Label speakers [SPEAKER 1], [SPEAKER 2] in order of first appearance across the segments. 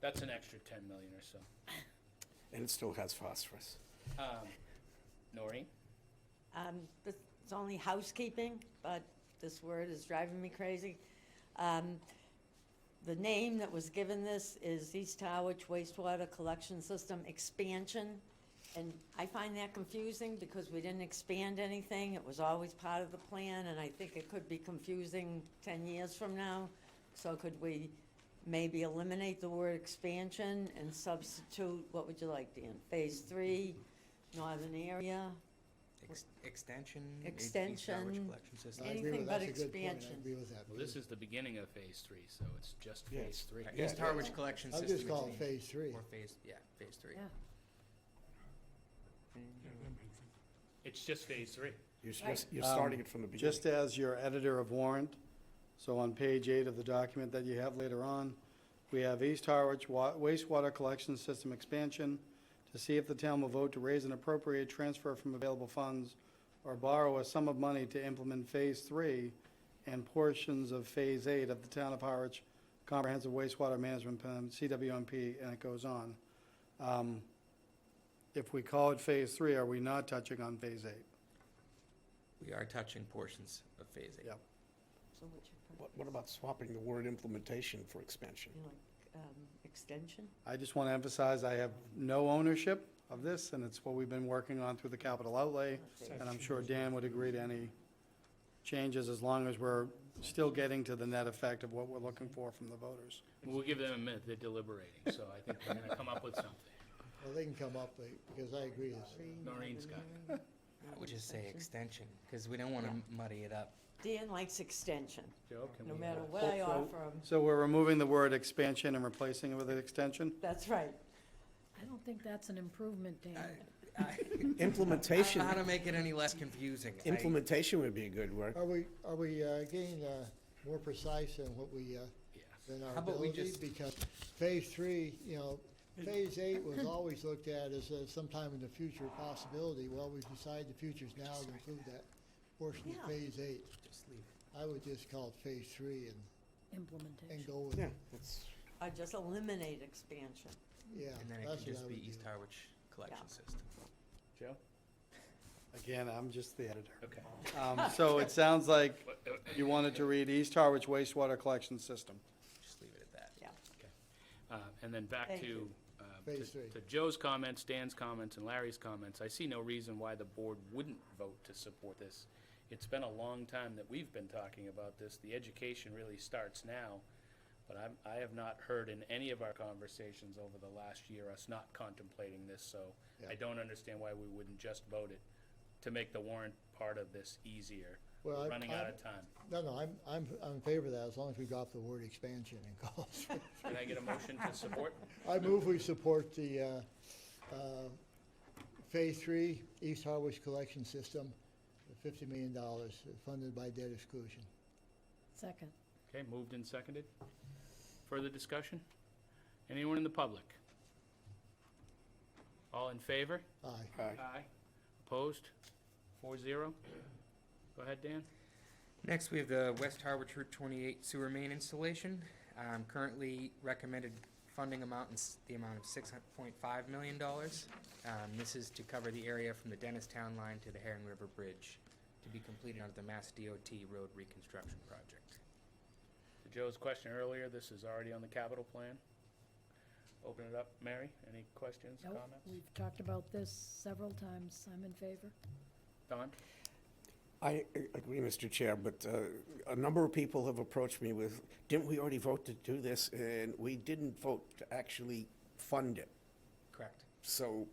[SPEAKER 1] That's an extra ten million or so.
[SPEAKER 2] And it still has phosphorus.
[SPEAKER 1] Um, Noreen?
[SPEAKER 3] Um, this is only housekeeping, but this word is driving me crazy. Um, the name that was given this is East Howard Wastewater Collection System Expansion. And I find that confusing because we didn't expand anything. It was always part of the plan, and I think it could be confusing ten years from now. So could we maybe eliminate the word expansion and substitute, what would you like, Dan? Phase three, northern area,
[SPEAKER 4] Ex- Extension?
[SPEAKER 3] Extension,
[SPEAKER 4] System.
[SPEAKER 3] any-
[SPEAKER 5] I agree
[SPEAKER 3] Anything
[SPEAKER 5] with-
[SPEAKER 3] but
[SPEAKER 5] That's a good point. I
[SPEAKER 3] expansion.
[SPEAKER 5] agree with that.
[SPEAKER 1] Well, this is the beginning of phase three, so it's just
[SPEAKER 2] Yeah,
[SPEAKER 1] phase three.
[SPEAKER 2] yeah.
[SPEAKER 4] East Harwich Collection
[SPEAKER 5] I'll
[SPEAKER 4] System.
[SPEAKER 5] just
[SPEAKER 4] is
[SPEAKER 5] call it
[SPEAKER 4] named-
[SPEAKER 5] phase three.
[SPEAKER 4] Or phase, yeah, phase three.
[SPEAKER 3] Yeah.
[SPEAKER 1] It's just phase three.
[SPEAKER 2] You're, s- you're s- you're
[SPEAKER 6] Um,
[SPEAKER 2] starting it from the beginning.
[SPEAKER 6] Just as your editor of warrant, so on page eight of the document that you have later on, we have East Harwich Wa- wastewater collection system expansion to see if the town will vote to raise an appropriate transfer from available funds or borrow a sum of money to implement Phase Three and portions of Phase Eight of the Town of Harwich Comprehensive Wastewater Management Plan, CWMP, and it goes on. Um, If we call it Phase Three, are we not touching on Phase Eight?
[SPEAKER 4] We are touching portions of phase eight.
[SPEAKER 6] Yeah.
[SPEAKER 3] So what's your purpose?
[SPEAKER 2] What, what about swapping the word implementation for expansion?
[SPEAKER 3] You like, um, extension?
[SPEAKER 6] I just want to emphasize, I have no ownership of this, and it's what we've been working on through the capital outlay, and I'm sure Dan would agree to any changes, as long as we're still getting to the net effect of what we're looking for from the voters.
[SPEAKER 1] We'll give them a minute, they're deliberating, so I think they're gonna come up with something.
[SPEAKER 5] Well, they can come up, with it, because I agree. it's-
[SPEAKER 1] Noreen's got
[SPEAKER 3] it.
[SPEAKER 4] I would just say extension, because we don't want to muddy it up.
[SPEAKER 3] Dan likes extension,
[SPEAKER 1] Joe, can
[SPEAKER 3] no
[SPEAKER 1] we?
[SPEAKER 3] matter
[SPEAKER 1] uh,
[SPEAKER 3] what I
[SPEAKER 6] So-
[SPEAKER 3] offer him,
[SPEAKER 6] So we're removing the word expansion and replacing it with an extension?
[SPEAKER 3] that's right.
[SPEAKER 7] I don't think that's an improvement, Dan.
[SPEAKER 2] Implementation,
[SPEAKER 4] How to make it any less confusing. I-
[SPEAKER 2] implementation would be a good word.
[SPEAKER 5] Are we, are we uh, getting uh, more precise in what we, uh,
[SPEAKER 1] Yes.
[SPEAKER 5] than our
[SPEAKER 4] How about we
[SPEAKER 5] ability?
[SPEAKER 4] just-
[SPEAKER 5] Because phase three, you know, phase eight was always looked at as a sometime in the future possibility. Well, we decided the future's now to include that portion
[SPEAKER 3] Yeah.
[SPEAKER 5] of phase eight.
[SPEAKER 4] Just leave it.
[SPEAKER 5] I would just call it phase three and, and
[SPEAKER 7] Implementation.
[SPEAKER 5] go with
[SPEAKER 2] Yeah,
[SPEAKER 5] it.
[SPEAKER 2] that's,
[SPEAKER 3] I just eliminate expansion.
[SPEAKER 5] Yeah,
[SPEAKER 4] And then it
[SPEAKER 5] that's
[SPEAKER 4] can
[SPEAKER 5] what I
[SPEAKER 4] just
[SPEAKER 5] would
[SPEAKER 4] be
[SPEAKER 5] do.
[SPEAKER 4] East Harwich Collection System.
[SPEAKER 1] Joe?
[SPEAKER 6] Again, I'm just the editor.
[SPEAKER 1] Okay.
[SPEAKER 6] Um, So it sounds like
[SPEAKER 1] What- uh,
[SPEAKER 6] you wanted to read East Harwich wastewater collection system.
[SPEAKER 4] Just leave it at that.
[SPEAKER 1] Uh, And then back
[SPEAKER 3] Thank
[SPEAKER 1] to,
[SPEAKER 3] you.
[SPEAKER 1] uh, to
[SPEAKER 5] Phase three.
[SPEAKER 1] to Joe's comments, Dan's comments, and Larry's comments, I see no reason why the board wouldn't vote to support this. It's been a long time that we've been talking about this. The education really starts now. But I'm, I have not heard in any of our conversations over the last year us not contemplating this, so I
[SPEAKER 5] Yeah.
[SPEAKER 1] don't understand why we wouldn't just vote it to make the warrant part of this easier.
[SPEAKER 5] Well,
[SPEAKER 1] We're
[SPEAKER 5] I-
[SPEAKER 1] running
[SPEAKER 5] I-
[SPEAKER 1] out of time.
[SPEAKER 5] No, no, I'm, I'm, I'm in favor of that, as long as we drop the word expansion and call it three.
[SPEAKER 1] Can I get a motion to support?
[SPEAKER 5] I move we support the uh, uh, Phase Three East Harwich Collection System, fifty million dollars funded by debt exclusion.
[SPEAKER 7] Second.
[SPEAKER 1] Okay, moved and seconded. Further discussion? Anyone in the public? All in favor?
[SPEAKER 5] Aye.
[SPEAKER 2] all right.
[SPEAKER 1] Aye. Opposed? Four zero. Go ahead, Dan.
[SPEAKER 4] Next, we have the West Harwich Route 28 sewer main installation. Um, Currently recommended funding amount is the amount of $6.5 million. Um, This is to cover the area from the Dennistown line to the Heron River Bridge to be completed under the Mass DOT Road Reconstruction Project.
[SPEAKER 1] To Joe's question earlier, this is already on the capital plan. Open it up. Mary, any questions,
[SPEAKER 7] Nope,
[SPEAKER 1] comments?
[SPEAKER 7] we've talked about this several times. I'm in favor.
[SPEAKER 1] Don?
[SPEAKER 2] I a- agree, Mr. Chair, but uh, a number of people have approached me with, didn't we already vote to do this? And we didn't vote to actually fund it.
[SPEAKER 4] Correct.
[SPEAKER 2] So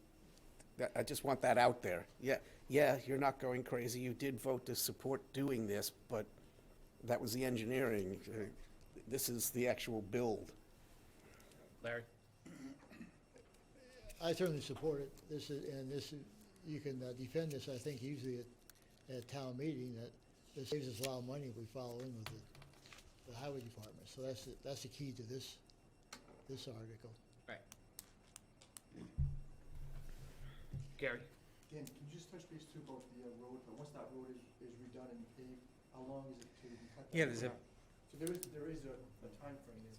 [SPEAKER 2] that, I just want that out there. Yeah, yeah, you're not going crazy. You did vote to support doing this, but that was the engineering. Uh, This is the actual build.
[SPEAKER 1] Larry?
[SPEAKER 5] I certainly support it. This is, and this, is- you can uh, defend this, I think, usually at, at town meeting, that this saves us a lot of money if we follow in with the, the highway department. So that's, the- that's the key to this, this article.
[SPEAKER 4] Right.
[SPEAKER 1] Gary?
[SPEAKER 8] Dan, can you just touch base too about the uh, road, but once that road is, is redone and paved, how long is it to? cut that
[SPEAKER 4] Yeah, there's a-
[SPEAKER 8] grass? So there is, there is a, a timeframe, is